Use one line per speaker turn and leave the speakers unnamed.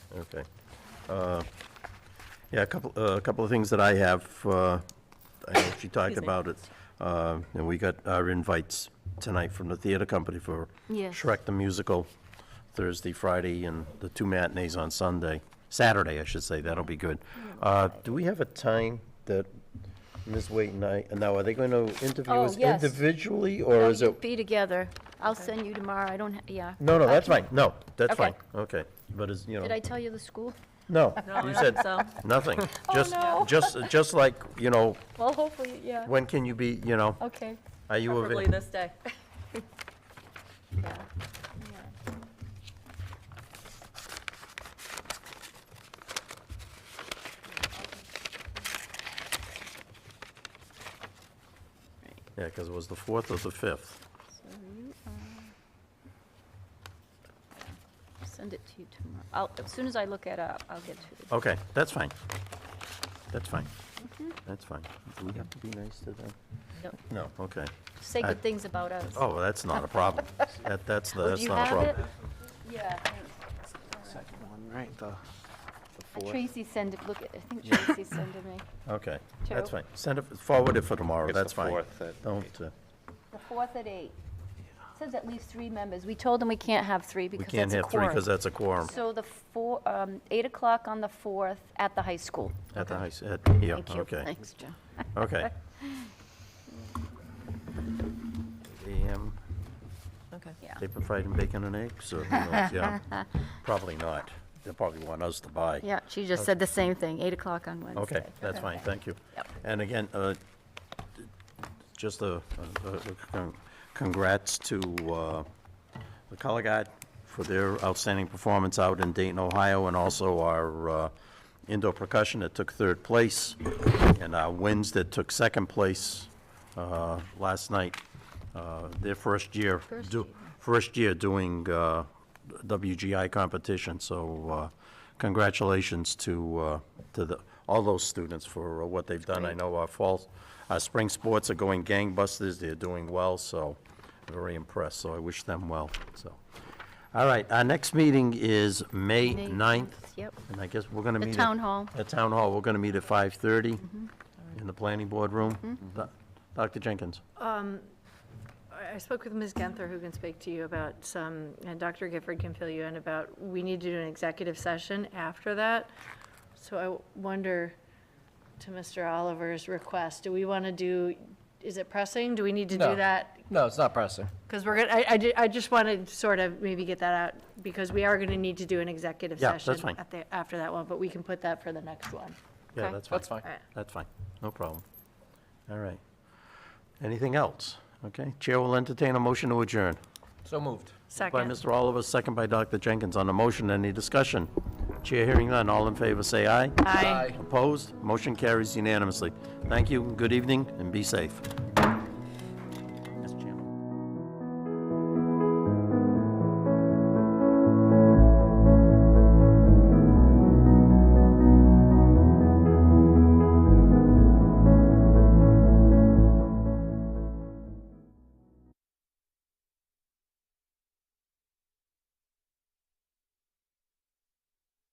Okay. Uh, Yeah, a couple, uh, a couple of things that I have, uh, I know she talked
Excuse me.
about it, uh, and we got our invites tonight from the theater company for
Yes.
Shrek the Musical, Thursday, Friday, and the two matinees on Sunday, Saturday, I should say, that'll be good. Uh, Do we have a time that Ms. Waite and I, uh, now, are they going to interview
Oh,
us
yes.
individually, or is it?
Be together. I'll send you tomorrow. I don't, ha- yeah.
No, no,
I
that's fine,
can-
no, that's
Okay.
fine, okay, but is, you know.
Did I tell you the school?
No,
I
you
don't
said
think so.
nothing.
Oh,
Just,
no.
just, just like, you know,
Well, hopefully, yeah.
when can you be, you know,
Okay.
are you
Preferably
available?
this day.
Yeah. Yeah.
Yeah, because it was the 4th or the 5th.
So you uh, are. Send it to you tomorrow. I'll, as soon as I look at it, I'll- I'll get to it.
Okay, that's fine. That's fine.
Mm-hmm.
That's fine. Do we have to be nice to them?
No.
No, okay.
Say
I-
good things about us.
Oh, well, that's not a problem. That, that's, the-
Oh, do
that's
you
not a
have
problem.
it? Yeah.
Second one, right, the,
I-
the fourth.
Tracy sent it, look, at- I think Tracy sent it me.
Okay, that's
Two.
fine. Send it, forward it for tomorrow,
It's the
that's fine.
4th at
Don't, uh,
The fourth at eight. Says at least three members. We told them we can't have three
we
because that's a
can't have three
quorum.
because that's a quorum
So the four, um, eight o'clock on the fourth at the high school.
at the high, s- at, yeah,
Thank you.
okay.
Thanks, Joe.
Okay. AM,
Okay.
Yeah.
paper fried and bacon and eggs, or who knows, yeah, probably not. They'll probably want us to buy.
Yeah, she just said the same thing, eight o'clock on Wednesday.
Oh, Okay, that's fine, thank you.
Yep.
And again, uh, just a, a- a con- congrats to uh, the Color Guard for their outstanding performance out in Dayton, Ohio, and also our uh, indoor percussion that took third place, and our winds that took second place uh, last night. Uh, Their first year, do- first year doing uh, WGI competition, so uh, congratulations to, uh, to the, all those students for uh, what they've done. I know our fall, our spring sports are going gangbusters, they're doing well, so very impressed, so I wish them well, so. All right, our next meeting is May
May
9th.
Yep.
And I guess we're gonna
The
meet. at-
town hall.
At Town Hall, we're gonna meet at 5:30 in the planning board room. Do- Dr. Jenkins?
I- I spoke with Ms. Genther, who can speak to you about some, and Dr. Gifford can fill you in about, we need to do an executive session after that. So I wonder, to Mr. Oliver's request, do we want to do, is it pressing? Do we need to do
No.
that?
No, it's not pressing.
Because we're gonna, I, I ju- I just want to sort of maybe get that out, because we are going to need to do an executive
Yeah,
session.
that's fine.
at the- After that one, but we can put that for the next one.
Yeah,
Okay.
that's fine.
That's fine.
All right.
That's fine, no problem. All right. Anything else? Okay, Chair will entertain a motion to adjourn.
So moved.
By
Second.
Mr. Oliver, second by Dr. Jenkins. On the motion, any discussion? Chair hearing none, all in favor, say aye.
Aye.
Opposed? Motion carries unanimously. Thank you, good evening, and be safe.